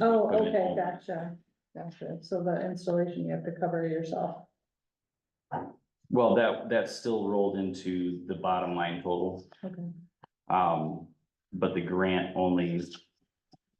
Oh, okay, gotcha, gotcha. So the installation, you have to cover yourself. Well, that, that's still rolled into the bottom line total. Okay. Um, but the grant only,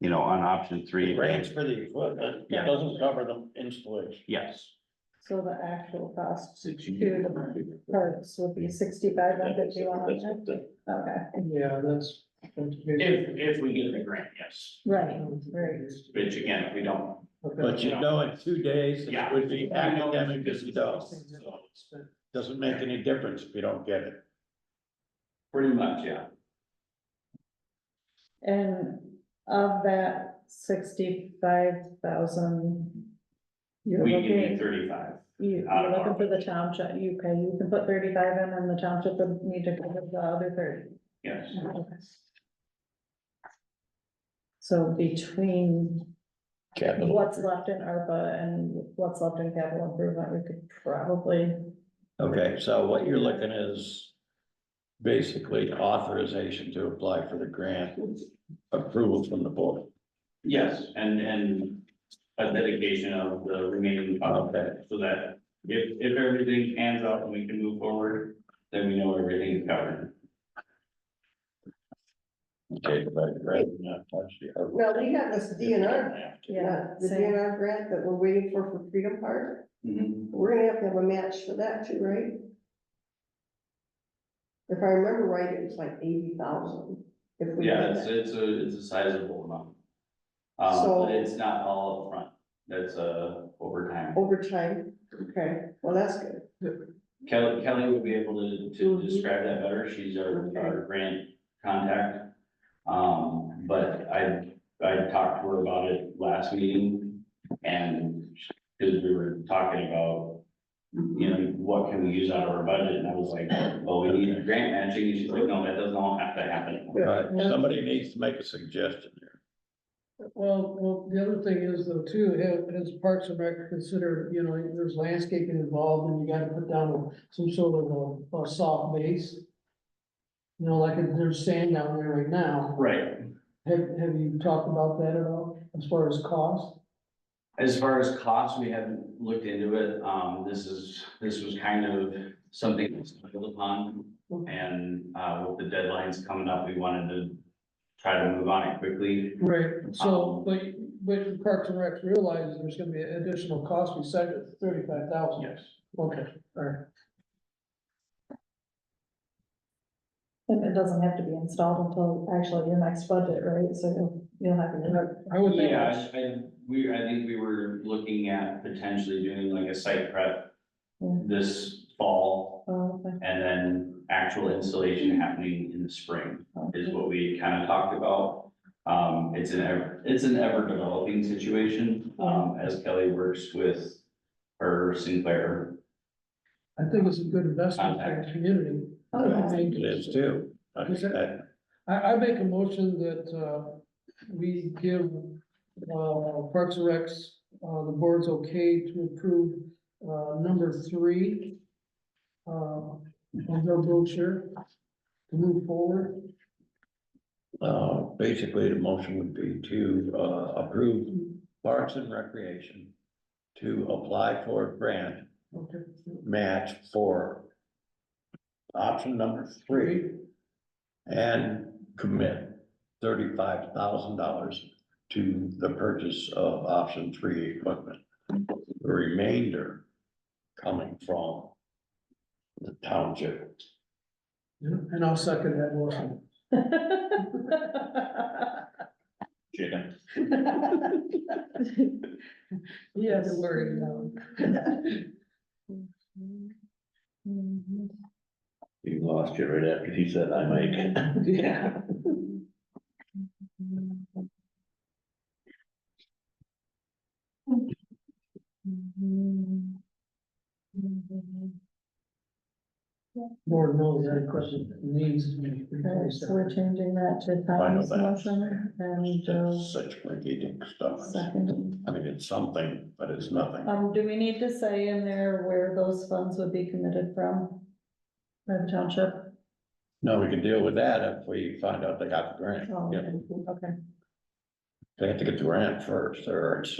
you know, on option three. Grants for the equipment, it Yeah. doesn't cover the installation. Yes, So the actual cost to the parts would be sixty-five and fifty-one. Okay, Yeah, that's. If, if we get the grant, yes, right, right. which again, if we don't. But you know, in two days, it Yeah. would be academic as we well. don't, so it's Doesn't make any difference if you don't get it. Pretty much, yeah. And of that sixty-five thousand, you're We can do looking, thirty-five. you- out of you're looking our- for the township, you can, you can put thirty-five in and the township would need to cover the other thirty. Yes, Okay. So between what's left in ARPA and what's left in capital improvement, we could probably, Okay, so what you're looking is basically authorization to apply for the grant, approval from the board. yes, and, and a dedication of the remaining funds, Okay, so that if, if everything pans out and we can move forward, then we know everything is covered. okay, but grant, not touch the other. Now, we got this DNR, yeah. uh, the same. DNR grant that we're waiting for for Freedom Park. Mhm. We're gonna have to have a match for that too, right? If I remember right, it was like eighty thousand. If we Yeah, did it's, that. it's a, it's a sizable amount. Um, So- but it's not all upfront, that's, uh, overtime. Overtime, okay, well, that's good. Kelly, Kelly would be able to, to Mhm. describe that better, she's our, Okay. our grant contact. Um, but I, I talked to her about it last meeting, and, because we were talking about, you know, what can we use out of our budget, and I was like, well, we need grant matching, and she's like, no, that doesn't all have to happen. All right, somebody needs to make a suggestion here. Well, well, the other thing is though too, ha- has Parks and Rec consider, you know, there's landscaping involved and you gotta put down some sort of a, a soft base. You know, like if there's sand down there right now. Right, Have, have you talked about that at all as far as cost? As far as costs, we haven't looked into it. Um, this is, this was kind of something that's built upon. And, uh, with the deadlines coming up, we wanted to try to move on it quickly. Right, so, but, but Parks and Rec realizes there's gonna be an additional cost besides the thirty-five thousand. Yes. Okay, all right. And it doesn't have to be installed until actually your next budget, right? So you'll- you'll have your. I would think. Yeah, I, I- we, I think we were looking at potentially doing like a site prep Yeah. this fall Oh, okay. and then actual installation happening in the spring is what we kind of talked about. Um, it's an ever, it's an ever developing situation, um, as Kelly works with her Sinclair. I think it's a good investment for the community. Okay. It is too. I I- I, I make a motion that, uh, we give, uh, Parks and Recs, uh, the board's okay to approve, uh, number three. Uh, of their brochure to move forward. Uh, basically, the motion would be to, uh, approve Parks and Recreation to apply for a grant Okay. match for option number three and commit thirty-five thousand dollars to the purchase of option three equipment. The remainder coming from the township. And I'll second that motion. Chicken. Yes. Mhm. You lost you right after he said I might. Yeah. Board knows that question needs to be. Okay, so we're changing that to Tom's motion and Joe's That's such complicated stuff. second. I mean, it's something, but it's nothing. Um, do we need to say in there where those funds would be committed from? By the township? No, we can deal with that if we find out they got the grant. Oh, Yeah. Okay. They have to get the grant first, or it's